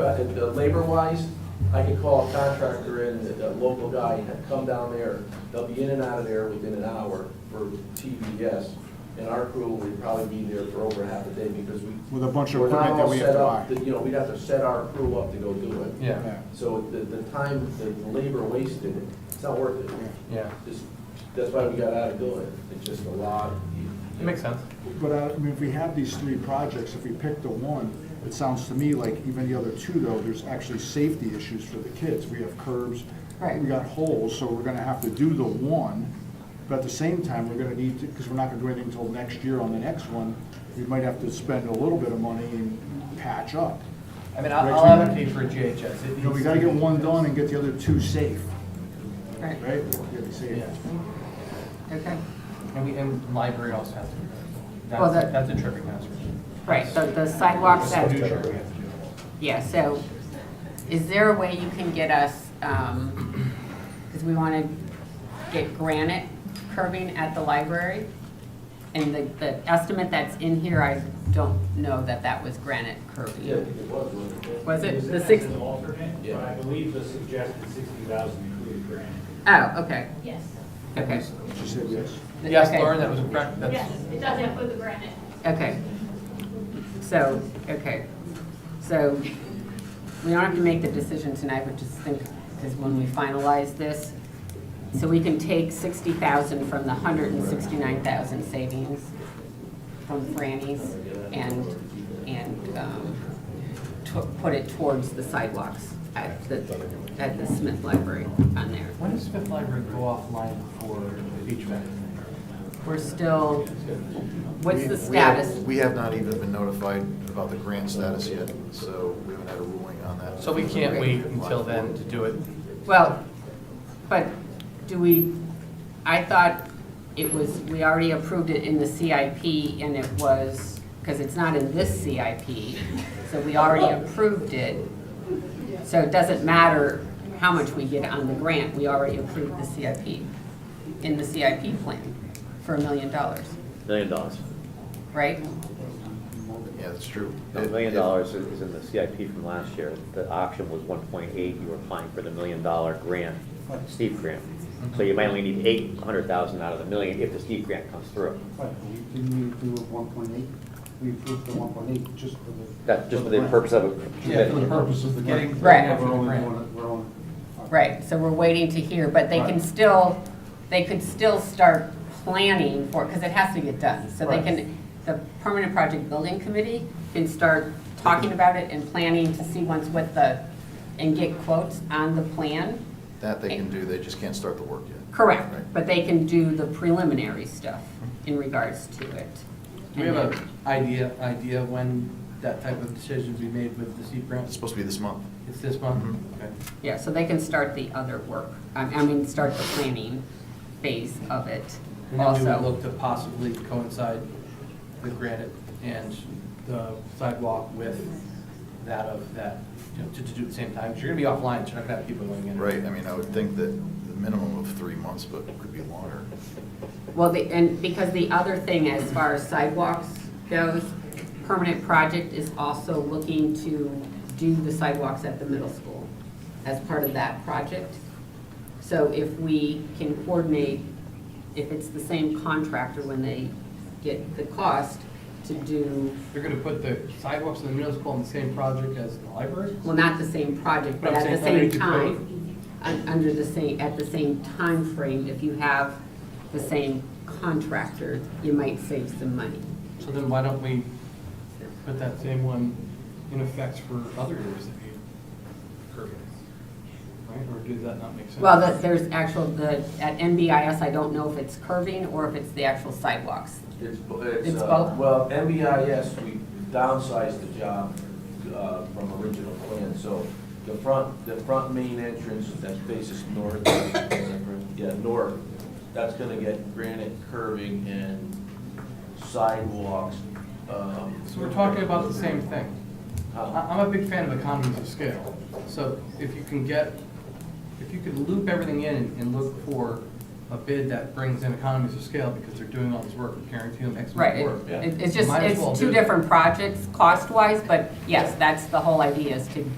uh, if the labor wise, I could call a contractor in, a a local guy, and come down there, they'll be in and out of there within an hour for TVS, and our crew would probably be there for over half a day, because we. With a bunch of we're not equipment that all we have set to up. buy. You know, we'd have to set our crew up to go do it. Yeah, Yeah. So the, the time, the the labor wasted, it's not worth it. yeah, Just, that's why we got out of doing it, it's just a lot. it makes sense. But uh, I mean, if we have these three projects, if we pick the one, it sounds to me like even the other two though, there's actually safety issues for the kids. We have curbs. Right. We got holes, so we're gonna have to do the one, but at the same time, we're gonna need to, because we're not gonna do anything until next year on the next one, we might have to spend a little bit of money and patch up. I mean, I'll, Right, I'll so you- advocate for a GHS. It You know, we needs gotta to get be- one done and get the other two safe, Right, right? Get it safe. Yeah, okay. and we, and library also has to. be done. Well, That's, that- that's a tripping hazard. Right, so the sidewalks So that, do sure we have to do that. yeah, so is there a way you can get us, um, because we want to get granite curving at the library? And the, the estimate that's in here, I don't know that that was granite Yeah, curving. it was, wasn't it? Was it Is the that six, as an alternate, but I believe the suggested sixty thousand included grant. oh, okay, Yes, okay. She said yes. Yes, Okay. Lauren, that was a correct, yes, that's, it does include the granite. Okay. So, okay, so we don't have to make the decision tonight, but just think, because when we finalize this, so we can take sixty thousand from the hundred and sixty-nine thousand savings from Franny's and, and, um, to- put it towards the sidewalks at the, at the Smith Library on there. When does Smith Library go offline for the beach event? We're still, what's We- the we have- status? We have not even been notified about the grant status yet, so we haven't had a ruling on that. so we can't wait until then to do it. Well, but do we, I thought it was, we already approved it in the CIP and it was, because it's not in this CIP, so we already approved it. So it doesn't matter how much we get on the grant, we already approved the CIP, in the CIP plan for a million dollars, Million dollars. right? Yeah, that's true. A million dollars is is in the CIP from last year. The auction was one point eight, you were applying for the million dollar grant, steep grant. So you might only need eight hundred thousand out of the million if the steep grant comes through. Right, but we didn't we do one point eight? We approved the one point eight just for the. That, just for the purpose of it. Yeah, For the purpose of the. Getting- Right. Yeah, We're only Right. doing it, we're only. Right, so we're waiting to hear, but they can Right. still, they could still start planning for, because it has to get done. So they Right. can, the Permanent Project Building Committee can start talking about it and planning to see once what the, and get quotes on the plan. That they can do, they just can't start the work yet. Correct, Right. but they can do the preliminary stuff in regards to it. Do we have an idea, idea of when that type of decision would be made with the steep It's grant? supposed to be this month. It's this month? Mm-hmm. Mhm. Okay. Yeah, so they can start the other work, I I mean, start the planning phase of it And then we would also. look to possibly coincide the granite and the sidewalk with that of that, you know, to, to do at the same time. 'Cause You're gonna be offline, so you're not gonna have people going in. Right, I mean, I would think that the minimum of three months, but it could be longer. Well, the, and because the other thing as far as sidewalks goes, Permanent Project is also looking to do the sidewalks at the middle school as part of that project. So if we can coordinate, if it's the same contractor when they get the cost to do, You're gonna put the sidewalks in the middle school on the same project as the library? well, not the same project, but But I'm at the saying same underneath the code. time, un- under the same, at the same time frame, if you have the same contractor, you might save some money. So then why don't we put that same one in effect for other areas that need curbing? Right, or does that not make sense? Well, that, there's actual, the, at NBIS, I don't know if it's curving or if it's the actual sidewalks. It's, bo- it's, It's uh, both? well, MBIS, we downsized the job, uh, from original plan, so the front, the front main entrance that faces north, yeah, north, that's gonna get granite curving and sidewalks, um. So we're talking about the same thing. uh, I- I'm a big fan of economies of scale, so if you can get, if you could loop everything in and look for a bid that brings in economies of scale, because they're doing all this work, and guaranteeing them X amount Right, of work. it- Yeah. it- it's just, Might as well it's two do it. different projects cost-wise, but yes, that's the whole idea is to do